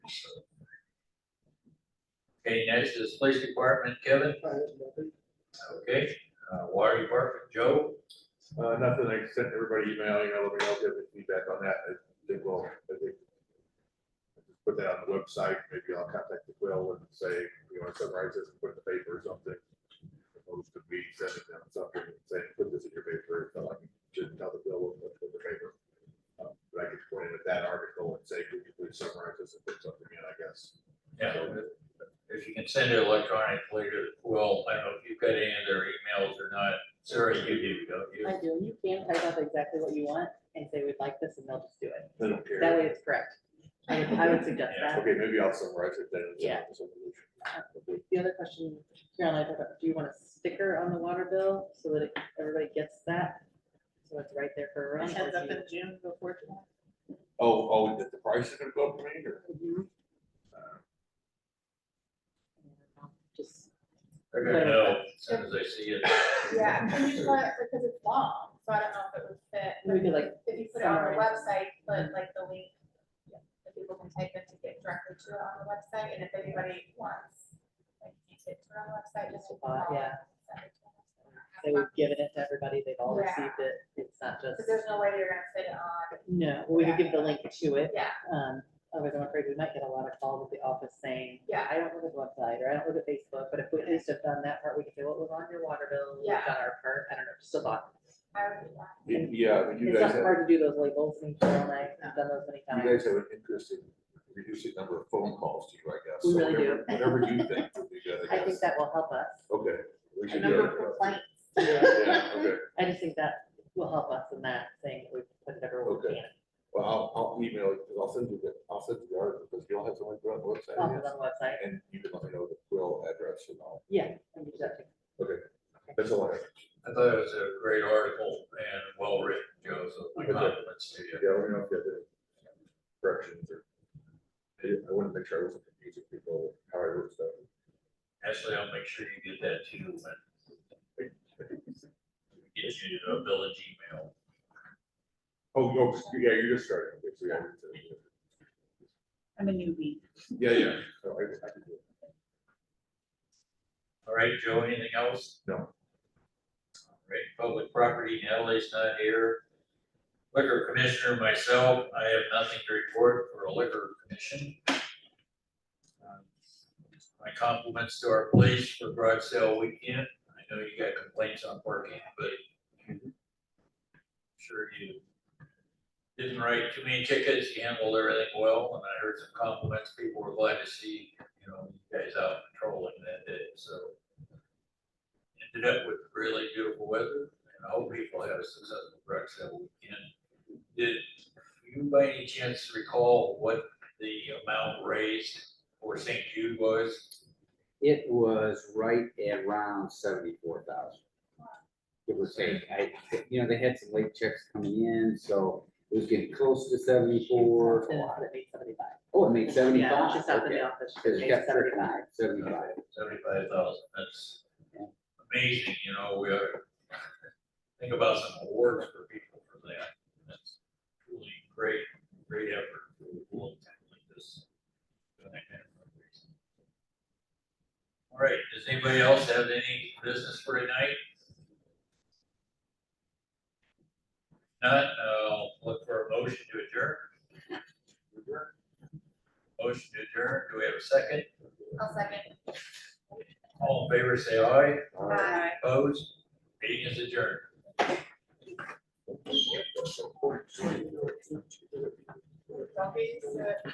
Okay, next is police department, Kevin, okay, uh, water department, Joe, Uh, nothing, I sent everybody email, you know, let me know if you have any feedback on that, I think we'll, I think. Put that on the website, maybe I'll contact the Quill and say, you want to summarize this, and put it in the paper or something. Opposed to me sending them something, and saying, put this in your paper, so I can, shouldn't tell the Quill what to put in the paper. Um, But I could point it at that article and say, could you please summarize this and put something in, I guess. yeah, if you can send it electronically to Quill, I don't know if you've got any of their emails or not, Sarah, you do, don't I you? do, you can type up exactly what you want and say we'd like this and they'll just do it. They don't care. That way it's correct. I would, I would suggest that. Okay, maybe I'll summarize it then. and send Yeah. Uh-huh. it to somebody. The other question, Caroline, I thought about, do you want a sticker on the water bill so that it- everybody gets that? So it's right there for everyone. Heads or up do in June before July. Oh, oh, that the price is gonna go up, you mean, or? you- Uh, Mhm. Just, They're gonna know as soon as they see it. Yeah, and you put, because it's long, so I don't know if it would fit. but we could like, If you put it on our summarize. website, Mm-hmm. put like the link, that people can type in to get directly to it on the website, and if anybody wants, like, you can it to it on the website, just. Just a thought, follow yeah. it, send it to us. say we've given it to everybody, they've all Yeah. received it, it's not just, Because there's no way you're gonna fit it on, no, we could give the link to it. yeah, Um, otherwise I'm afraid we might get a lot of calls at the office saying, yeah, I don't look at the website or I don't look at Facebook, but if we at least have done that part, we can say what was on your water bill, we've Yeah. done our part, I don't know, just a lot. I would do that. y- Yeah, but you It's guys not have, hard to do those labels and Carol and I have done those many you times. guys have an interest in reducing number of phone calls to you, I guess. We So really do. Whatever whatever you think would be good, I I guess. think that will help us. Okay. we A should do number of that. complaints. Yeah, okay. I just think that will help us in that thing, we put it everywhere we Okay. can, Well, I'll, I'll email, you, 'cause I'll send you the, I'll send you the article, because you'll have someone go on the also on website. the website. And you can let me know the quill address and all. Yeah. we can do that too. That's all I have. I thought it was a great article and well written, Joe, so my compliments to you. Yeah, let me know if you have any corrections or. I I wanted to make sure I wasn't confusing people, how I wrote stuff. Ashley, I'll make sure you get that too, when we get you a village email. Oh, oh, yeah, you're just starting. Okay, so yeah, it's, uh, I'm a newbie. Yeah, yeah. So I just- I can do it. All right, Joe, anything else? No. All right, public property, Natalie's not here. Liquor commissioner, myself, I have nothing to report for a liquor commission. Um, My compliments to our police for broad sale weekend. I know you got complaints on parking, but sure you didn't write too many tickets, you handled everything well, and I heard some compliments. People were glad to see, you know, you guys out patrolling that day, so. Ended up with really beautiful weather, and I hope people had a successful Breck sale weekend. Did you by any chance recall what the amount raised for St. Jude was? It was right around seventy-four thousand. It was, I, you know, they had some late checks coming in, so it was getting close to seventy-four. Something that made somebody buy. Oh, it made Yeah, seventy-five, Just out in okay. the office, Cause it made got 75. thirty-five, seventy-five. Seventy-five thousand, that's Yeah. amazing, you know, we are, think about some awards for people for that. That's truly great, great effort for a long time like this. doing that kind of fundraising. All right, does anybody else have any business for tonight? Not, I'll look for a motion to adjourn. Motion to adjourn, do we have a second? I'll second. All in favor, say aye. Bye. Opposed? Meeting is adjourned. Don't be, so-